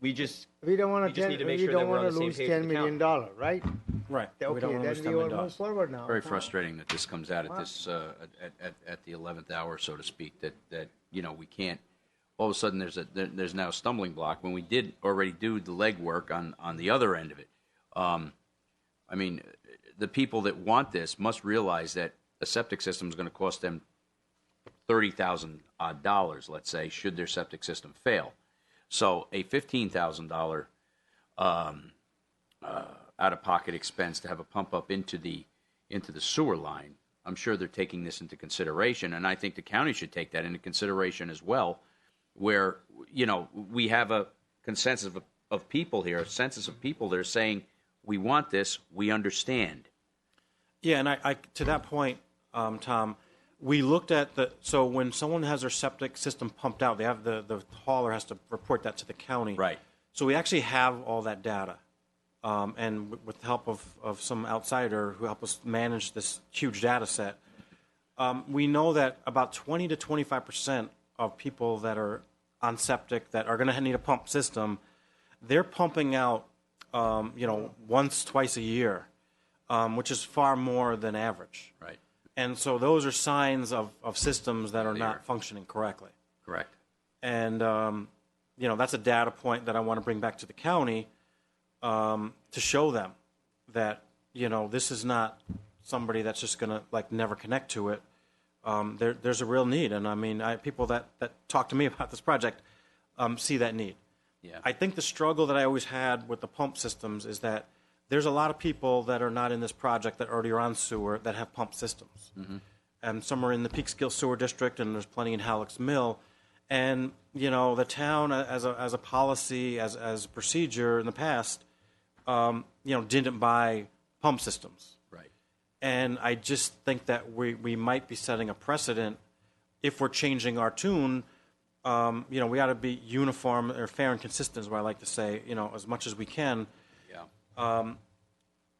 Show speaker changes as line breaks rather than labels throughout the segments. We just,
We don't want
We
to,
just need to make
we
sure that
don't
we're on
want
the
to
same
lose
page with
ten
the
million dollar, right?
Right. We
Okay,
don't want to lose
then we
$10
will
million.
move forward now.
Very frustrating that this comes out at this, uh, at, at, at the 11th hour, so to speak, that, that, you know, we can't, all of a sudden, there's a, there- there's now a stumbling block when we did already do the legwork on, on the other end of it. Um, I mean, the people that want this must realize that a septic system is going to cost them thirty thousand odd dollars, let's say, should their septic system fail. So a fifteen thousand dollar out of pocket expense to have a pump up into the into the sewer line. I'm sure they're taking this into consideration, and I think the county should take that into consideration as well. Where you know we have a consensus of, of people here, a census of people that are saying we want this, we understand.
Yeah, and I, I to that point, um, Tom, we looked at the so when someone has their septic system pumped out, they have the the hauler has to report that to the county.
Right.
So we actually have all that data, um, and with- with the help of of some outsider who helped us manage this huge data set, um, we know that about twenty to twenty five percent of people that are on septic that are going to need a pump system, they're pumping out, um, you know, once twice a year um, which is far more than average.
Right.
And so those are signs of, of systems that are
Clear.
not functioning correctly.
Correct.
And, um, you know, that's a data point that I want to bring back to the county um, to show them that, you know, this is not somebody that's just going to, like, never connect to it. Um, there, there's a real need. And I mean, I, people that, that talk to me about this project um, see that need.
Yeah.
I think the struggle that I always had with the pump systems is that there's a lot of people that are not in this project that already are on sewer that have pump systems. And some are in the Peekskill Sewer District, and there's plenty in Halleck's Mill. And, you know, the town, uh, as a, as a policy, as, as a procedure in the past, um, you know, didn't buy pump systems.
Right.
And I just think that we, we might be setting a precedent if we're changing our tune. Um, you know, we ought to be uniform or fair and consistent, is what I like to say, you know, as much as we can.
Yeah.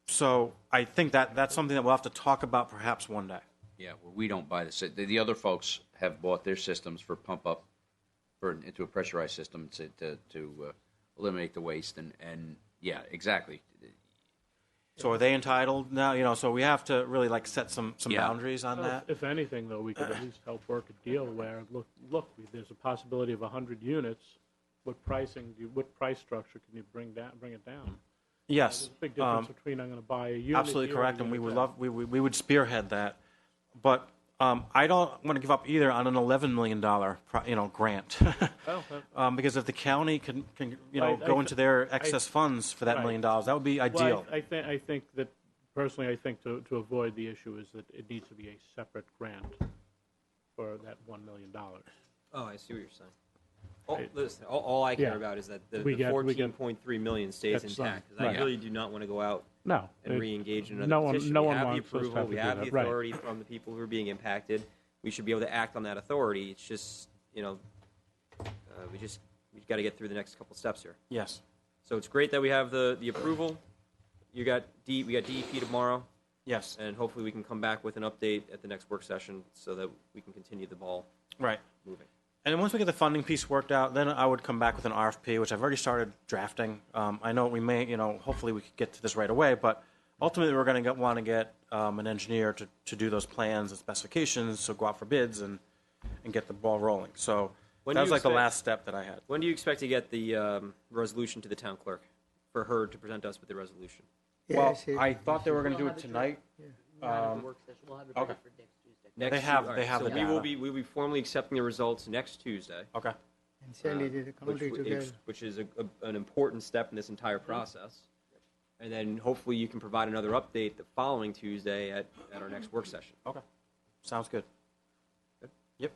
So I think that that's something that we'll have to talk about perhaps one day.
Yeah. Well, we don't buy the sy- the, the other folks have bought their systems for pump up for into a pressurized system to to, to uh, eliminate the waste and and yeah, exactly.
So are they entitled now? You know, so we have to really like set some, some
Yeah.
boundaries on
Well,
that.
If if anything, though, we could at least help work a deal where, look, look, we- there's a possibility of 100 units. What pricing, do you- what price structure can you bring down, bring it down? There's
Yes.
a big
um,
difference between I'm going to buy a unit
Absolutely
here a
correct, and we
unit
would
there.
love, we, we we would spearhead that. But um, I don't want to give up either on an eleven million dollar, you know, grant.
that-
Um, because if the county can, can, you know,
Oh, I-
go
I th-
into their excess funds for that
right.
million dollars, that would be ideal.
Well, I, I think, I think that, personally, I think to, to avoid the issue is that it needs to be a separate grant for that $1 million.
Oh, I see what you're saying. All, listen, all, all I care
Yeah.
about is that the,
We
the
get- we get-
14.3 million stays
That's fine.
intact. 'cause I
Right.
really do not want to go out
No.
and re-engage in another
no one-
petition.
no
we
one
have
wants us
the
to have
approval.
to
we
do
have
that.
the
Right.
authority from the people who are being impacted. We should be able to act on that authority. It's just you know, uh, we just we've got to get through the next couple steps here.
Yes,
So it's great that we have the the approval. You got D, we got DEP tomorrow,
yes,
and hopefully we can come back with an update at the next work session so that we can continue the ball
right.
moving.
And then once we get the funding piece worked out, then I would come back with an RFP, which I've already started drafting. Um, I know we may, you know, hopefully we could get to this right away, but ultimately we're going to want to get um, an engineer to, to do those plans and specifications, so go out for bids and, and get the ball rolling. So
When
that
do
was
you
like the
expect-
last step that I had.
When do you expect to get the um, resolution to the town clerk for her to present us with the resolution?
Well,
Yes, it-
I thought they were going to do it tonight.
We'll have the work session, we'll have it ready
okay.
for next Tuesday.
Next
They have-
Tu- all
they have
so
the
we will
data.
be we will be formally accepting the results next Tuesday. Uh,
Okay.
And
Uh,
Sally did a
which,
commentary
w-
together.
ex- which is a, a- an important step in this
Mm-hmm.
entire process. And then hopefully you can provide another update the following Tuesday at, at our next work session.
Okay. Sounds good. Yep.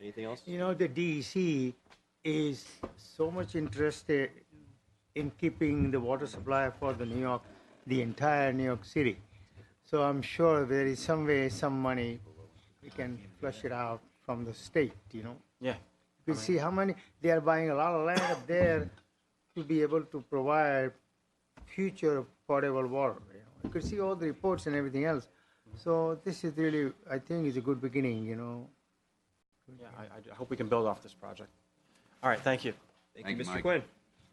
Anything else?
You know, the DEC is so much interested in keeping the water supply for the New York, the entire New York City. So I'm sure there is some way, some money, we can flush it out from the state, you know?
Yeah.
We see how many, they are buying a lot of land up there to be able to provide future potable water. You know, you could see all the reports and everything else. So this is really, I think, is a good beginning, you know?
Yeah. I, I hope we can build off this project. All right. Thank you.
Thank,
Thank
you,
you,
Mr.
Mike.
Quinn.